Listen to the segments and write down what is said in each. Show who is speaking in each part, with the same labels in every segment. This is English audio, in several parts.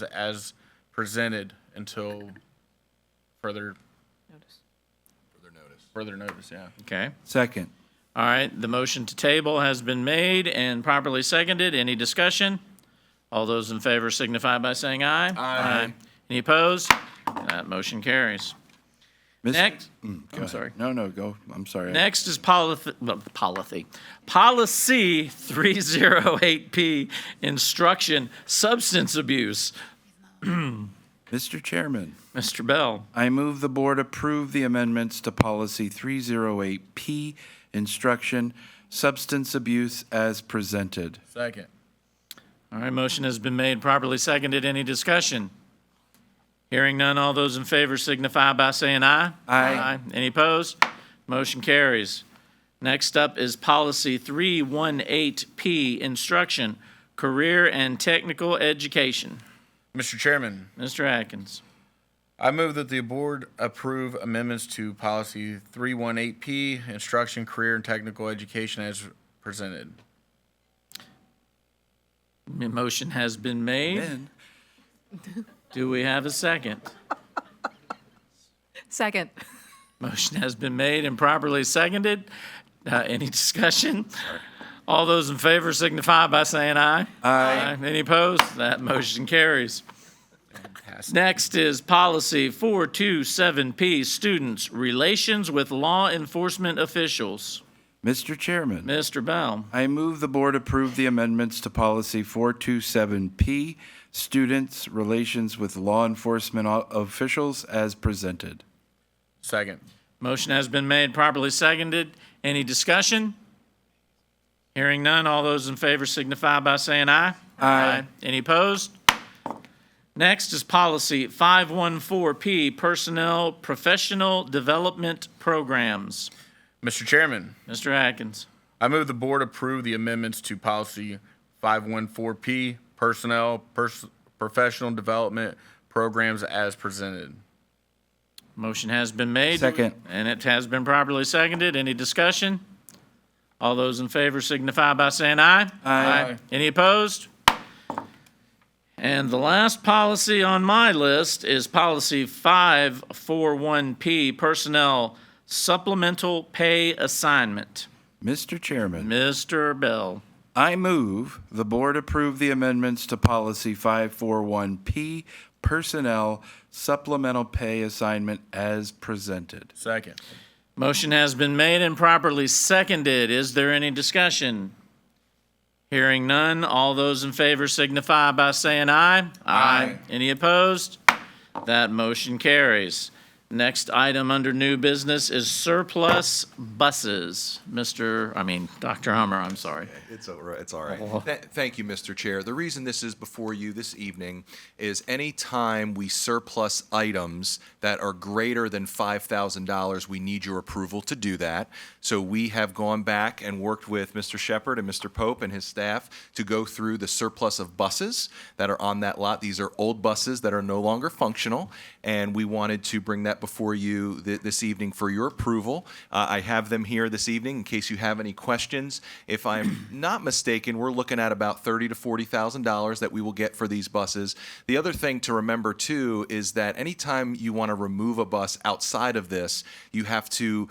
Speaker 1: items as presented until further, further notice, yeah.
Speaker 2: Okay.
Speaker 3: Second.
Speaker 2: All right, the motion to table has been made and properly seconded. Any discussion? All those in favor signify by saying aye. Aye. Any opposed? That motion carries.
Speaker 3: Miss- Mm,
Speaker 2: Next,
Speaker 3: Go
Speaker 2: I'm
Speaker 3: ahead.
Speaker 2: sorry.
Speaker 3: No, no, go. I'm sorry.
Speaker 2: Next is policy, policy, policy 308P, instruction, substance abuse.
Speaker 3: Mr. Chairman,
Speaker 2: Mr. Bell,
Speaker 3: I move the board approve the amendments to policy 308P, instruction, substance abuse as presented.
Speaker 1: Second.
Speaker 2: all right, motion has been made, properly seconded. Any discussion? Hearing none, all those in favor signify by saying aye.
Speaker 3: Aye.
Speaker 2: Any opposed? Motion carries. Next up is policy 318P, instruction, career and technical education.
Speaker 1: Mr. Chairman,
Speaker 2: Mr. Atkins.
Speaker 1: I move that the board approve amendments to policy 318P, instruction, career, and technical education as presented.
Speaker 2: M- Motion has been made.
Speaker 3: Then,
Speaker 2: Do we have a second?
Speaker 4: Second.
Speaker 2: Motion has been made and properly seconded. Uh, Any discussion? All those in favor signify by saying aye. Aye. Any opposed? That motion carries. Next is policy 427P, students' relations with law enforcement officials.
Speaker 3: Mr. Chairman,
Speaker 2: Mr. Bell,
Speaker 3: I move the board approve the amendments to policy 427P, students' relations with law enforcement o- officials as presented.
Speaker 1: Second.
Speaker 2: motion has been made, properly seconded. Any discussion? Hearing none, all those in favor signify by saying aye. Aye. Any opposed? Next is policy 514P, personnel professional development programs.
Speaker 1: Mr. Chairman,
Speaker 2: Mr. Atkins.
Speaker 1: I move the board approve the amendments to policy 514P, personnel, pers- professional development programs as presented.
Speaker 2: Motion has been made.
Speaker 3: Second.
Speaker 2: And it has been properly seconded. Any discussion? All those in favor signify by saying aye.
Speaker 1: Aye.
Speaker 2: Any opposed? And the last policy on my list is Policy 541P, Personnel Supplemental Pay Assignment.
Speaker 3: Mr. Chairman.
Speaker 2: Mr. Bell.
Speaker 3: I move the board approve the amendments to policy 541P, personnel supplemental pay assignment as presented.
Speaker 1: Second.
Speaker 2: Motion has been made and properly seconded. Is there any discussion? Hearing none, all those in favor signify by saying aye. Aye. Any opposed? That motion carries. Next item under new business is surplus buses. Mr., I mean, Dr. Hummer, I'm sorry.
Speaker 5: It's all right. It's all right. Th- thank you, Mr. Chair. The reason this is before you this evening is any time we surplus items that are greater than $5,000, we need your approval to do that. So we have gone back and worked with Mr. Shepard and Mr. Pope and his staff to go through the surplus of buses that are on that lot. These are old buses that are no longer functional, and we wanted to bring that before you thi- this evening for your approval. Uh, I have them here this evening in case you have any questions. If I'm not mistaken, we're looking at about thirty to forty thousand dollars that we will get for these buses. The other thing to remember too is that anytime you want to remove a bus outside of this, you have to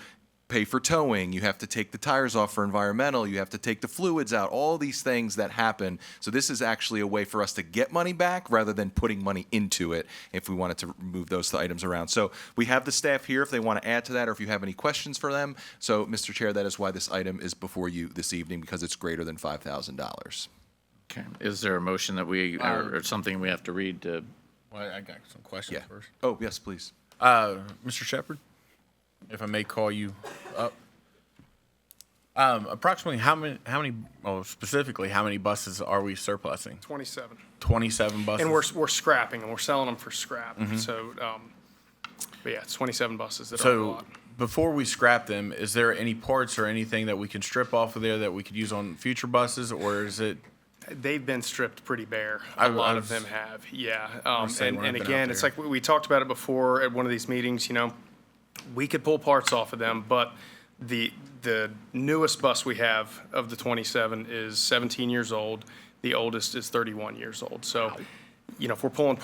Speaker 5: pay for towing, you have to take the tires off for environmental, you have to take the fluids out, all these things that happen. So this is actually a way for us to get money back rather than putting money into it if we wanted to move those items around. So we have the staff here if they want to add to that or if you have any questions for them. So Mr. Chair, that is why this item is before you this evening because it's greater than $5,000.
Speaker 2: Okay. Uh, Is there a motion that we, or or something we have to read to?
Speaker 1: Well, I got some questions
Speaker 5: Yeah.
Speaker 1: first.
Speaker 5: Oh, yes, please.
Speaker 1: Uh,
Speaker 6: Uh-huh.
Speaker 1: Mr. Shepard, if I may call you up. Um, approximately how many, how many, oh, specifically, how many buses are we surplusing?
Speaker 6: 27.
Speaker 1: Twenty-seven buses?
Speaker 6: And we're, we're scrapping and we're selling them for scrap.
Speaker 1: Mm-hmm.
Speaker 6: So, um, but yeah, it's 27 buses that are on the
Speaker 1: So
Speaker 6: lot.
Speaker 1: before we scrap them, is there any parts or anything that we can strip off of there that we could use on future buses, or is it?
Speaker 6: They've been stripped pretty bare.
Speaker 1: I- I
Speaker 6: A lot
Speaker 1: was-
Speaker 6: of them have, yeah. Um,
Speaker 1: saying
Speaker 6: and,
Speaker 1: when I've
Speaker 6: and
Speaker 1: been out
Speaker 6: again, it's
Speaker 1: there.
Speaker 6: like, we, we talked about it before at one of these meetings, you know, we could pull parts off of them, but the, the newest bus we have of the 27 is 17 years old. The oldest is 31 years old. So you know, if we're pulling